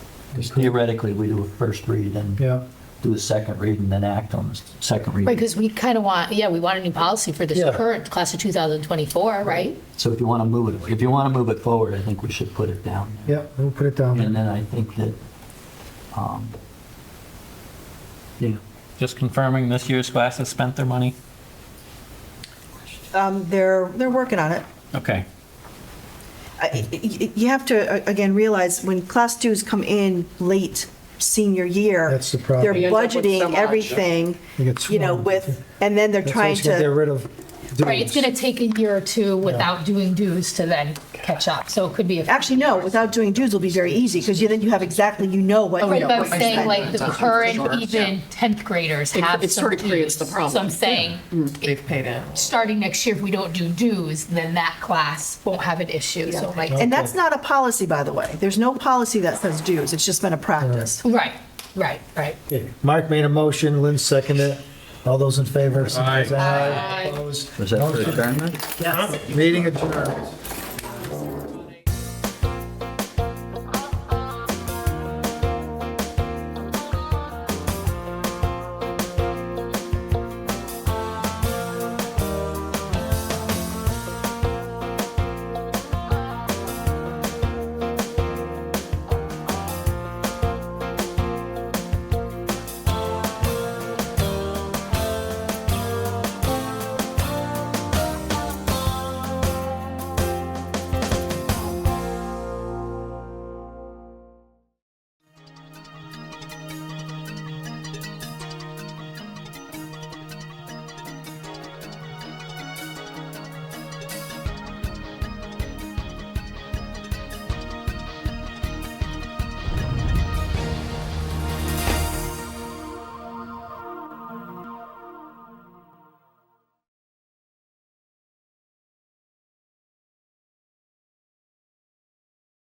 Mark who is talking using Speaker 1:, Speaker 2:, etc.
Speaker 1: Because theoretically, we do a first read and
Speaker 2: Yeah.
Speaker 1: do a second read and then act on the s- second
Speaker 3: Right,
Speaker 1: read.
Speaker 3: because we kind of want, yeah, we want a new policy for this
Speaker 2: Mm-hmm. Yeah.
Speaker 3: current class of 2024, right?
Speaker 1: So if you want to move it, if you want to move it forward, I think we should put it down. there.
Speaker 2: Yeah, we'll put it down.
Speaker 1: And then I think that, um, yeah,
Speaker 4: Just confirming this year's class has spent their money?
Speaker 5: Um, They're, they're working on it.
Speaker 4: Okay.
Speaker 5: I- y- y- You have to, uh, again, realize when class twos come in late senior year.
Speaker 2: That's the problem.
Speaker 6: You
Speaker 5: They're
Speaker 6: end up with so
Speaker 5: budgeting
Speaker 6: much.
Speaker 5: everything,
Speaker 2: They get
Speaker 5: you know,
Speaker 2: swamped.
Speaker 5: with, and then they're
Speaker 2: That's why
Speaker 5: trying
Speaker 2: it's gonna Get
Speaker 5: to,
Speaker 2: rid of dues.
Speaker 3: Right, it's going to take a year or two without doing dues to then catch up, so it could be. a-
Speaker 5: actually, no, without doing dues will be very easy because then you have exactly, you know what.
Speaker 6: Oh,
Speaker 3: Right,
Speaker 6: yeah,
Speaker 3: but I'm
Speaker 6: what I
Speaker 3: saying
Speaker 6: said.
Speaker 3: like the
Speaker 6: That's sure,
Speaker 3: current
Speaker 6: yeah.
Speaker 3: even 10th graders
Speaker 6: It-
Speaker 3: have
Speaker 6: it
Speaker 3: some
Speaker 6: sort of creates
Speaker 3: dues.
Speaker 6: the problem.
Speaker 3: So I'm saying,
Speaker 6: They've paid it.
Speaker 3: starting next year, if we don't do dues, then that class won't have an issue, so like,
Speaker 5: And that's not a policy, by the way. There's no policy that says dues. It's just been a practice.
Speaker 3: right, right, right.
Speaker 2: Okay, Mark made a motion, Lynn seconded it. All those in favor? signify by Aye.
Speaker 1: was that for adjournment?
Speaker 2: Opposed? Meeting adjourned.